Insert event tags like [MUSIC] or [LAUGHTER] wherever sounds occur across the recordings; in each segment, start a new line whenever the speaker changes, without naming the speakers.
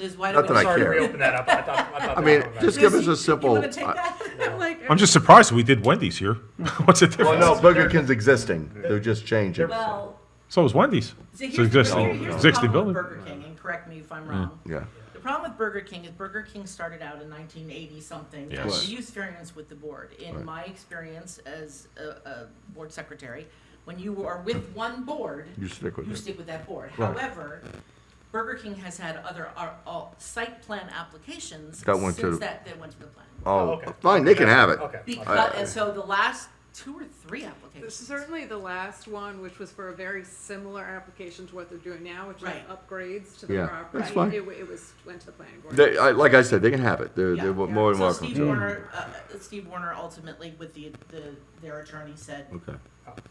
is why
Not
don't
that
we?
I
Sorry to
care.
reopen that up. I thought, I thought
I
that
mean,
one-
just give us
You
a simple.
wanna take that? [LAUGHS] I'm like,
I'm just surprised we did Wendy's here. [LAUGHS] What's the difference?
Well, no, Burger King's existing. They're just changing.
Well,
So is Wendy's.
see,
It's
here's the,
existing,
here- here's the
existing
problem with
building.
Burger King, and correct me if I'm wrong.
Mm. Yeah.
The problem with Burger King is Burger King started out in 1980 something.
Yes.
The use variance with the board. In
Right.
my experience as a, a board secretary, when you are with one board,
You stick with
you
it.
stick with that board.
Right.
However, Burger King has had other ar- all site plan applications
That went to-
since that that went to the plan.
Oh,
okay.
fine, they can have it.
Okay.
Because, and so the last two or three applications.
Certainly the last one, which was for a very similar application to what they're doing now, which is
Right.
upgrades to the
Yeah,
property.
that's fine.
It, w- it was, went to the planning board.
They, I, like I said, they can have it. They're,
Yeah.
they're more than
So
welcome
Steve
to.
Warner, uh, uh, Steve Warner ultimately with the, the, their attorney said,
Okay.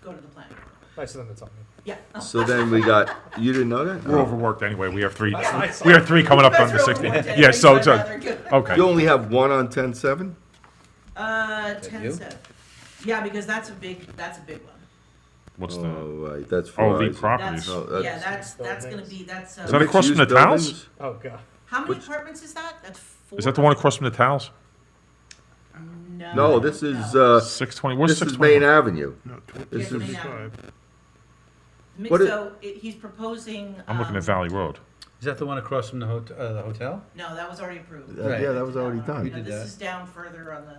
go to the planning board.
Nice of them to tell me.
Yeah.
So then we got, you didn't know that?
We're overworked anyway. We have three.
I saw
[LAUGHS] We have three coming up on the
Guys are over
16th.
one
[LAUGHS] Yeah.
day,
So,
I'd
so
rather get-
okay.
You only have one on ten seven?
Uh, ten
you?
seven. Yeah, because that's a big, that's a big one.
What's
Oh,
the?
right, that's
Oh, the
Verizon.
properties.
That's,
No,
yeah,
that's-
that's, that's gonna be, that's,
that
uh,
a- across from the
Mixed-use
towns?
buildings?
Oh, God.
how many apartments is that? That's four.
Is that the one across from the towels?
No.
No, this is,
no.
uh,
Six twenty. Where's
this
six
is Main
twenty?
Avenue.
No,
This
Yeah,
is,
Main Avenue. Mi-
what is-
So, it- he's proposing,
I'm looking at
um,
Valley Road.
Is that the one across from the hot- uh, the hotel?
No, that was already approved.
uh, yeah, that was already
We
done.
No,
did
this
that.
is down further on the,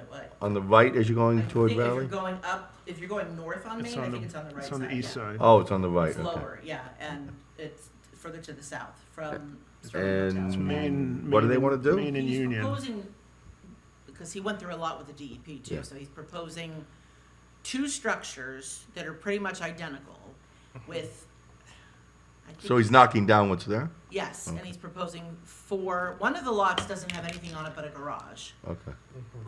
uh, what?
On the right as you're
I
going
think
toward
if you're
Valley?
going up, if you're going north on Main, I think it's on the right side.
It's on the east
yeah.
side.
Oh, it's on the right,
It's
okay.
lower, yeah, and it's further to the south from Sterling Hotel.
And
Main-
what do they
Main-
want to do?
Main and
He's
Union.
proposing, because he went through a lot with the DEP
Yeah.
too, so he's proposing two structures that are pretty much identical with. I
Mm-hmm. So
think-
he's knocking down what's there?
Yes, and he's proposing four, one of the lots doesn't have anything on it but a garage.
Okay.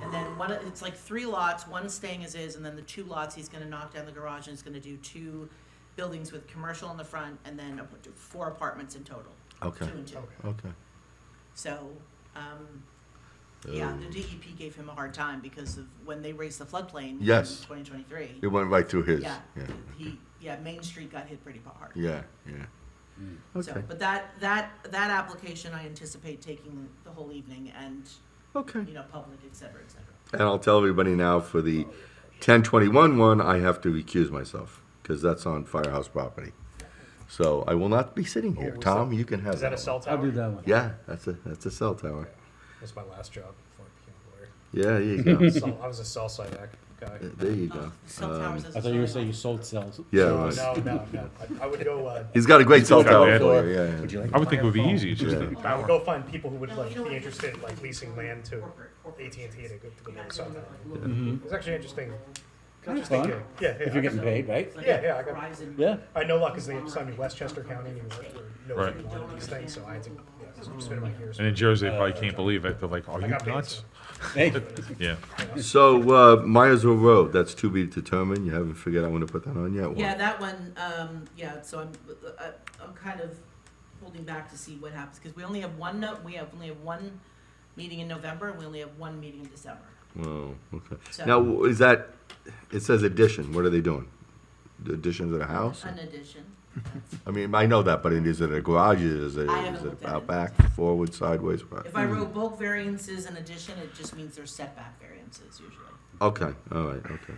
And then one, of- it's like three lots, one staying as is, and then the two lots, he's gonna knock down the garage and he's gonna do two buildings with commercial in the front and then a- four apartments in total.
Okay.
Two and two.
Okay.
So, um, yeah,
Oh.
the DEP gave him a hard time because of when they raised the floodplain
Yes.
in twenty twenty-three.
It went right through his.
Yeah,
Yeah,
he, yeah, Main Street got hit pretty hard.
yeah, yeah.
So, but that, that, that application, I anticipate taking the whole evening and,
Okay.
you know, public, et cetera, et cetera.
And I'll tell everybody now for the ten twenty-one one, I have to recuse myself, because that's on firehouse property. So I will not be sitting here.
Oh, is
Tom,
that-
you can have
Is that a
one.
cell tower?
I'll do that one.
Yeah, that's a, that's a cell tower.
That's my last job before I
Yeah, there you go.
became a lawyer. Cell- I was a cell side act guy.
There you go.
Cell
um,
towers as a
I thought you
solar
were saying you
light.
sold cells.
Yeah,
No,
right.
no, no, no. I, I would go, uh,
He's got a great cell
got
tower
that.
for you, yeah, yeah.
you like?
I would think it would be easy. It's just
Yeah.
the
I
power.
would go find people who would
No,
like
you don't
be
have to
interested in like
do
leasing
corporate-
land to
corporate- corporate
AT&T to go to
You're
go
not
build cell
doing,
tower.
like, little-
Mm-hmm.
It's actually interesting.
Kind of
interesting.
fun.
Yeah, yeah.
If you're getting paid, right?
like
Yeah, yeah, I got-
Verizon-
Yeah.
I know a lot because they assigned me Westchester County and no
Right.
one wanted these things, so I had to yeah, I was spending my years.
And in Jersey, they probably can't believe it. They're like, "Are
I
you
got paid, so-
nuts?"
Hey,
Yeah.
So, uh, Myersville Road, that's to be determined. You haven't figured out when to put that on yet? Warren?
Yeah, that one, um, yeah, so I'm, I, I'm kind of holding back to see what happens, because we only have one note, we have, only have one meeting in November, and we only have one meeting in December.
Wow, okay.
So-
Now, is that, it says addition, what are they doing? The Addition to the house?
An addition.
I mean, I know that, but it- is it a garage, is it,
I haven't
is it
looked at
out
it.
back, forward, sideways? what?
If I wrote bulk variances in addition, it just means there's setback variances usually,
Okay, all right, okay.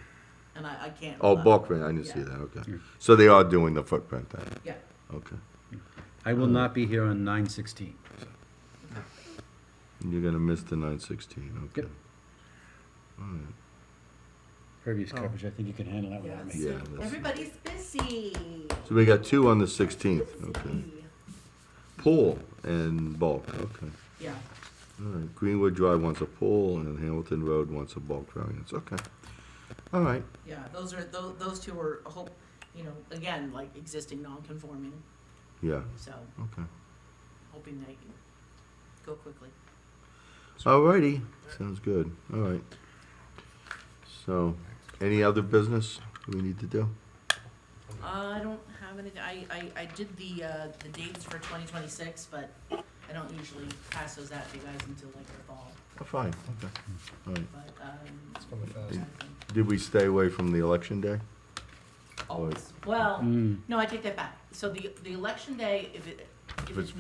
and I, I can't.
Oh,
uh,
bulk, print, I didn't see
yeah.
that, okay. So they are doing the footprint then,
Yeah,
okay.
I will not be here on nine sixteen.
And You're gonna miss the nine sixteen, okay.
Yep. Previous coverage, I think you can handle that without me.
yeah,
Yeah,
so
that's-
everybody's busy.
So we got two on the sixteenth, okay.
Busy.
Pool and bulk, okay.
Yeah,
All right, Greenwood Drive wants a pool and Hamilton Road wants a bulk variance, okay. All right,
yeah, those are, those, those two are, a whole, you know, again, like existing non-conforming,
yeah,
so
okay.
hoping they can go quickly.
Alrighty, sounds good, alright. So, any other business we need to do?
Uh, I don't have anything, I, I, I did the, uh, the dates for twenty twenty-six, but I don't usually pass those out to you guys until like the fall,
Oh, Fine, okay, alright.
but, um,
Coming fast.
Did we stay away from the election day?
Hmm.
always, well, no, I take that back. So the, the election day, if it, if
it's
it's